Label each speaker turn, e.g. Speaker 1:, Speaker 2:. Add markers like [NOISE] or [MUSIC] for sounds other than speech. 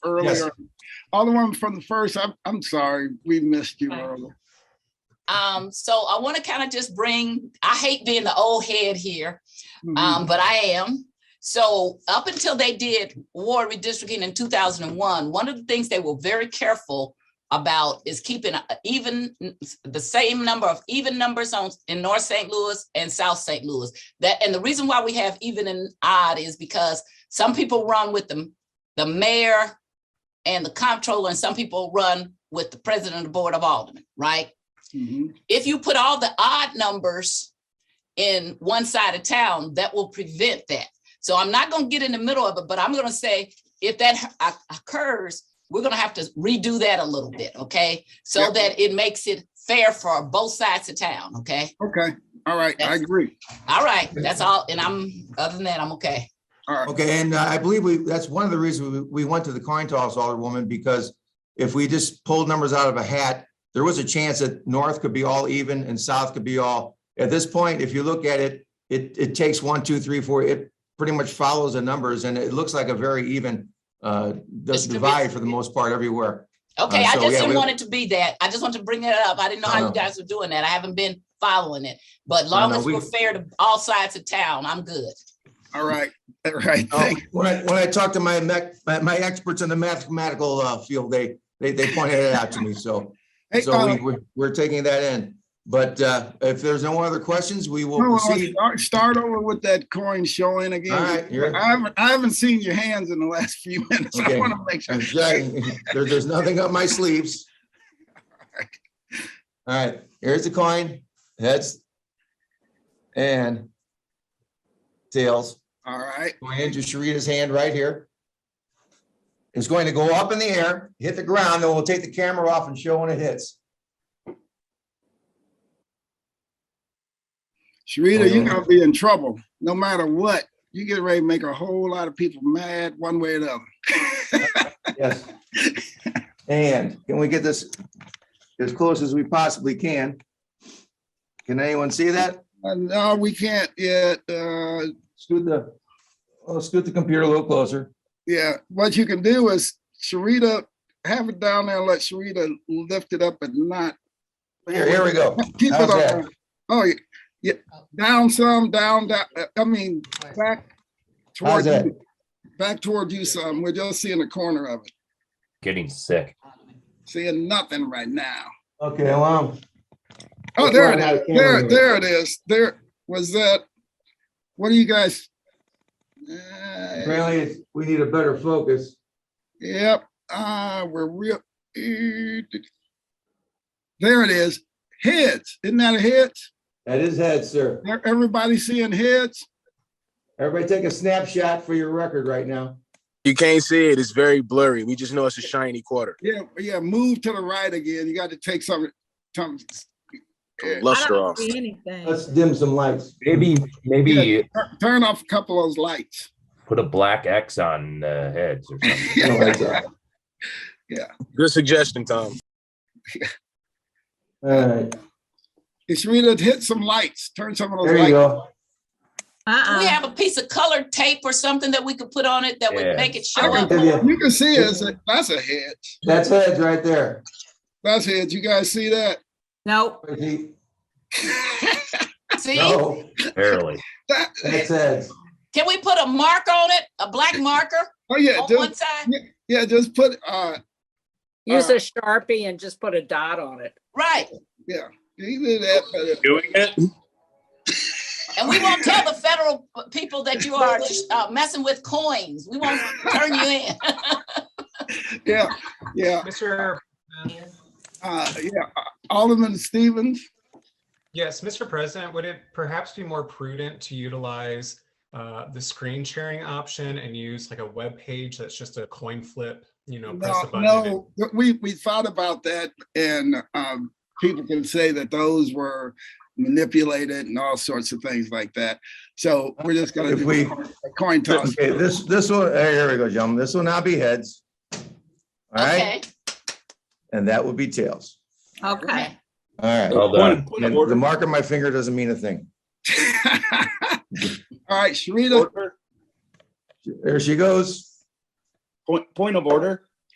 Speaker 1: earlier. Alderman from the first, I'm, I'm sorry, we missed you,
Speaker 2: Fine.
Speaker 1: Earl.
Speaker 2: Um, so I want to kind of just bring, I hate being the old head here, um, but I am. So up until they did ward redistricting in two thousand and one, one of the things they were very careful about is keeping a- even the same number of even numbers on in North St. Louis and South St. Louis. That and the reason why we have even and odd is because some people run with the the mayor and the comptroller, and some people run with the president of the board of aldermen, right?
Speaker 1: Mhm.
Speaker 2: if you put all the odd numbers in one side of town, that will prevent that. So I'm not gonna get in the middle of it, but I'm gonna say, if that o- occurs, we're gonna have to redo that a little bit, okay? So
Speaker 1: Yep.
Speaker 2: that it makes it fair for both sides of town, okay?
Speaker 1: Okay, all right, I
Speaker 2: That's-
Speaker 1: agree.
Speaker 2: All right, that's all, and I'm, other than that, I'm okay.
Speaker 1: All right,
Speaker 3: Okay, and I believe we, that's one of the reasons we, we went to the coin toss, Alderwoman, because if we just pulled numbers out of a hat, there was a chance that north could be all even and south could be all. At this point, if you look at it, it, it takes one, two, three, four, it pretty much follows the numbers and it looks like a very even uh, this
Speaker 2: Distribution.
Speaker 3: divide for the most part everywhere.
Speaker 2: Okay, I
Speaker 3: Uh, so,
Speaker 2: just
Speaker 3: yeah,
Speaker 2: didn't
Speaker 3: we-
Speaker 2: want it to be that. I just want to bring it up. I didn't know how
Speaker 3: No,
Speaker 2: you
Speaker 3: no.
Speaker 2: guys were doing that. I haven't been following it. But long
Speaker 3: no,
Speaker 2: as
Speaker 3: we-
Speaker 2: we're fair to all sides of town, I'm good.
Speaker 1: all right, [LAUGHS] all right,
Speaker 3: Oh,
Speaker 1: thank,
Speaker 3: When I, when I talked to my, mech- my my experts in the mathematical uh, field, they, they, they pointed it out to me, so.
Speaker 1: hey,
Speaker 3: So
Speaker 1: uh,
Speaker 3: we, we're, we're taking that in. But uh, if there's no other questions, we will
Speaker 1: no, no,
Speaker 3: proceed.
Speaker 1: start- Start over with that coin showing
Speaker 3: All
Speaker 1: again.
Speaker 3: right, you're,
Speaker 1: I haven't, I haven't seen your hands in the last [LAUGHS] few minutes. I
Speaker 3: Okay.
Speaker 1: want to make sure.
Speaker 3: I'm saying, there, there's nothing up my
Speaker 1: [LAUGHS]
Speaker 3: sleeves. All right, here's the coin, heads. And tails,
Speaker 1: All right,
Speaker 3: going into Sharita's hand right here. It's going to go up in the air, hit the ground, then we'll take the camera off and show when it hits.
Speaker 1: Sharita, you're
Speaker 3: Hold on.
Speaker 1: gonna be in trouble, no matter what. You get ready to make a whole lot of people mad one way or the other.
Speaker 3: Yes. And can we get this as close as we possibly can? Can anyone see that?
Speaker 1: Uh, No, we can't yet. Uh,
Speaker 3: Scoot the, oh, scoot the computer a little closer.
Speaker 1: yeah, what you can do is Sharita, have it down there, and let Sharita lift it up and not.
Speaker 3: Here, here we go.
Speaker 1: Keep it
Speaker 3: How's
Speaker 1: up.
Speaker 3: that?
Speaker 1: Oh, yeah, yeah, down some, down, down, uh, I mean, back
Speaker 3: How's
Speaker 1: toward
Speaker 3: that?
Speaker 1: you. Back toward you some. We're just seeing the corner of it,
Speaker 4: Getting sick.
Speaker 1: seeing nothing right now.
Speaker 3: Okay, well. um,
Speaker 1: Oh,
Speaker 3: That's
Speaker 1: there
Speaker 3: why
Speaker 1: it
Speaker 3: I had
Speaker 1: is.
Speaker 3: a camera
Speaker 1: There,
Speaker 3: here.
Speaker 1: there it is. There was that. What do you guys? Uh,
Speaker 3: Apparently, it's- we need a better focus.
Speaker 1: yep. Uh, we're real. There it is. Heads. Isn't that a head?
Speaker 3: That is heads, sir.
Speaker 1: Everybody seeing heads?
Speaker 3: Everybody take a snapshot for your record right now.
Speaker 5: You can't see it. It's very blurry. We just know it's a shiny quarter.
Speaker 1: Yeah, yeah. Move to the right again. You got to take some. some yeah,
Speaker 5: Luster off.
Speaker 6: see anything.
Speaker 3: Let's dim some lights.
Speaker 4: Maybe, maybe
Speaker 1: tur- turn off a couple of those lights.
Speaker 4: put a black X on the heads or
Speaker 3: No,
Speaker 4: something.
Speaker 3: that's all right.
Speaker 5: Good suggestion, Tom.
Speaker 3: All right,
Speaker 1: It's really hit some lights. Turn some of those
Speaker 3: there
Speaker 1: lights.
Speaker 3: you go.
Speaker 2: Do we
Speaker 6: Uh-uh.
Speaker 2: have a piece of colored tape or something that we could put on it that would
Speaker 4: Yeah.
Speaker 2: make it
Speaker 3: I
Speaker 2: show
Speaker 3: can
Speaker 2: up?
Speaker 3: give you-
Speaker 1: You can see it's a- that's a head.
Speaker 3: That's heads right there.
Speaker 1: That's heads. You guys see that? [LAUGHS]
Speaker 6: Nope.
Speaker 2: See,
Speaker 3: No,
Speaker 4: Barely. [LAUGHS]
Speaker 1: That-
Speaker 3: that's heads.
Speaker 2: can we put a mark on it, a black marker
Speaker 1: oh yeah,
Speaker 2: on one
Speaker 1: just,
Speaker 2: side?
Speaker 1: yeah, just put uh
Speaker 7: Use
Speaker 6: Uh-uh.
Speaker 7: a Sharpie and just put a dot on it.
Speaker 2: Right,
Speaker 1: you did that, but- uh,
Speaker 5: Doing it?
Speaker 2: and we won't tell the federal people that you are uh, messing with coins. We won't turn you in.
Speaker 1: yeah, yeah,
Speaker 8: Mr.
Speaker 1: uh, yeah. Alderman Stevens,
Speaker 8: Yes, Mr. President, would it perhaps be more prudent to utilize uh, the screen sharing option and use like a web page that's just a coin flip? You know, press
Speaker 1: no,
Speaker 8: a button. and it-
Speaker 1: no, we, we thought about that and um, people can say that those were manipulated and all sorts of things like that. So we're just gonna
Speaker 3: If
Speaker 1: do
Speaker 3: we-
Speaker 1: a coin- a coin toss.
Speaker 3: Okay, this, this will, eh, here we go, gentlemen. This will now be heads. All right,
Speaker 2: Okay,
Speaker 3: and that will be tails.
Speaker 6: Okay.
Speaker 3: All right.
Speaker 4: Well done.
Speaker 3: And The mark on my finger doesn't mean a thing.
Speaker 1: [LAUGHS] All right, Sharita,
Speaker 3: There she goes.
Speaker 9: Point, point of order,